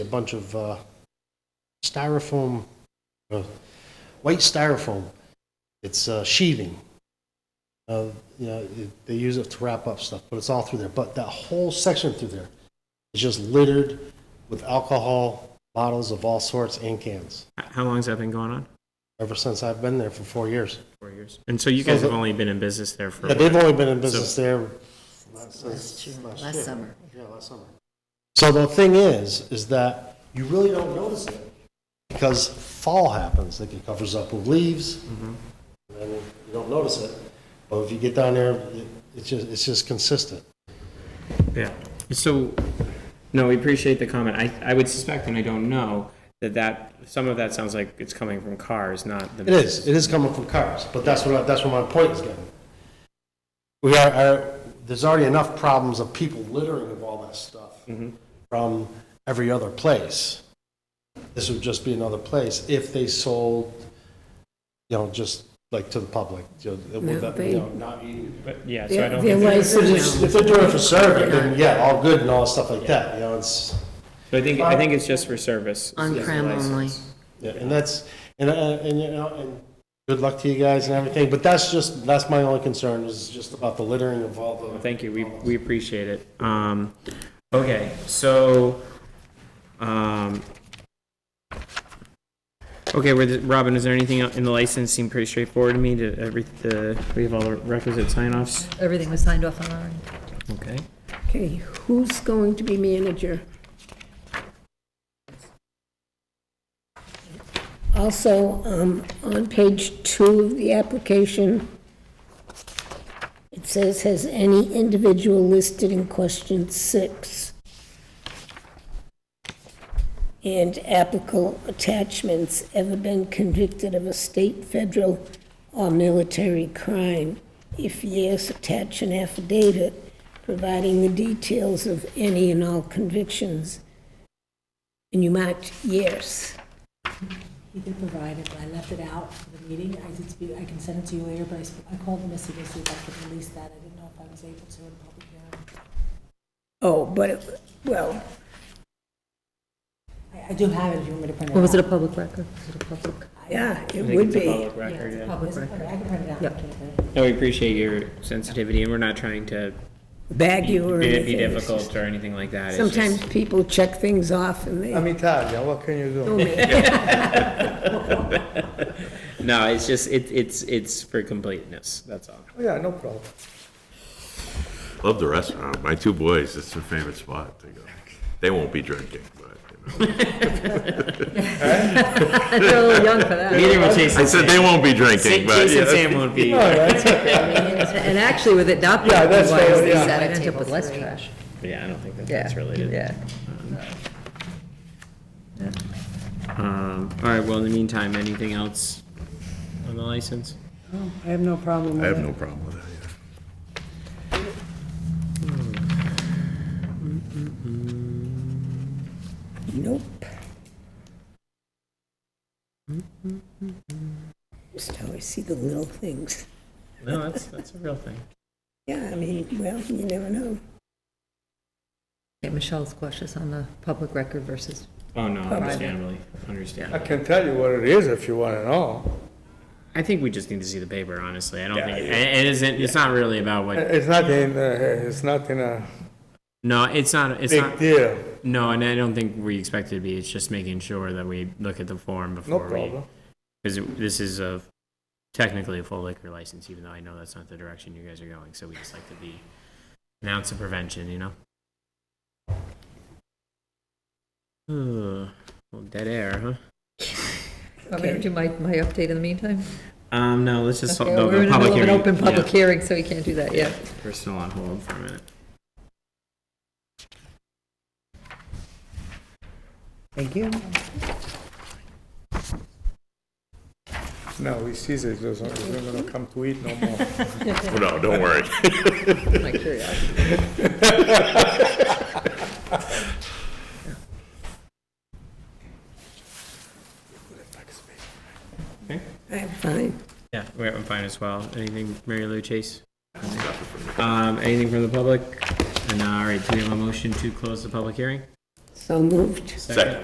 a bunch of uh, styrofoam, uh, white styrofoam. It's uh, sheathing. Uh, you know, it, they use it to wrap up stuff, but it's all through there. But that whole section through there is just littered with alcohol bottles of all sorts and cans H- How long's that been going on? ever since I've been there for four years. Four years. And so you guys So have the- only been in business there for. Yeah, they've only been in business there Last year, last summer. Yeah, last summer. So the thing is, is that you really don't notice it because fall happens, like it covers up with leaves, and then you don't notice it. But if you get down there, it- it's just, it's just consistent. Yeah. So, no, we appreciate the comment. I, I would suspect, and I don't know, that that, some of that sounds like it's coming from cars, not the. It is, it is coming from cars, but that's what, I- that's what my point is getting. We are, are, there's already enough problems of people littering of all that stuff from every other place. This would just be another place if they sold, you know, just like to the public, you know, with that, you know, not eating. But, yeah, so I Their don't. their think- license, If they're doing it for serving, then yeah, all good and all stuff like that, you know, it's. So I think, I think it's just for service. On is the prem license. only. Yeah, and that's, and, uh, and, you know, and good luck to you guys and everything, but that's just, that's my only concern, is just about the littering of all the. Thank you, we, we appreciate it. Um, okay, so, um, okay, were the- Robin, is there anything el- in the license seemed pretty straightforward to me, to every, the, we have all the requisite sign-offs? Everything was signed off on our end. Okay. Okay, who's going to be manager? Also, um, on page two of the application, it says, "Has any individual listed in question six?" And applicable attachments ever been convicted of a state, federal, or military crime? If yes, attach an affidavit providing the details of any and all convictions. And you marked yes. He did provide it, but I left it out for the meeting. I did speak, I can send it to you later, but I sp- I called Missy to see if I could release that. I didn't know if I was able to in a public hearing. Oh, but, it- well, I, I do have it if you want me to print it out. Well, was it a public record? Was it a public? yeah, it I think would it's a be. public record, yeah. Public record. I can print it out. Yep. No, we appreciate your sensitivity, and we're not trying to Bag be you or anything. be difficult or anything like that. It's just- Sometimes people check things off and they, I'm Italian, what can you do? oh, man. No, it's just, it, it's, it's for completeness, that's all. Yeah, no problem. Love the restaurant. My two boys, it's their favorite spot to go. They won't be drinking, but, you know. They're a little young for that. Neither will Jason I said they Sam. won't be Jason drinking, but, you know. Sam won't be. All right. And actually, with it not being Yeah, that's wise, fair, they yeah. said, I end up with less trash. Yeah, I don't think that Yeah, that's related. Yeah. Um, all right, well, in the meantime, anything else on the license? I have no problem I with have it. no problem with that, yeah. Nope. Just always see the little things. No, that's, that's a real thing. Yeah, I mean, well, you never know. Yeah, Michelle's questions on the public record versus, Oh, no, understandably, I understandably. can tell you what it is if you want to know. I think we just need to see the paper, honestly. I don't Yeah, think, yeah. it it isn't, it's not really about what, It's not in, uh, it's not in a no, it's not, it's big not, deal, no, and I don't think we expect it to be. It's just making sure that we look at the form no before we. problem. Because this is a, technically a full liquor license, even though I know that's not the direction you guys are going, so we just like to be an ounce of prevention, you know? Ugh, well, dead air, huh? I'm going to do my, my update in the meantime. Um, no, let's just, the Okay, We're the in the public middle of hearing. an open public yeah, hearing, so we can't do that yet. We're still on hold for a minute. Thank you. No, he sees it, he's not going to come to eat no more. No, don't worry. My curiosity. I'm fine. Yeah, we're, I'm fine as well. Anything, Mary Lou, Chase? Um, anything from the public? And, uh, all right, do we have a motion to close the public hearing? So moved. Second.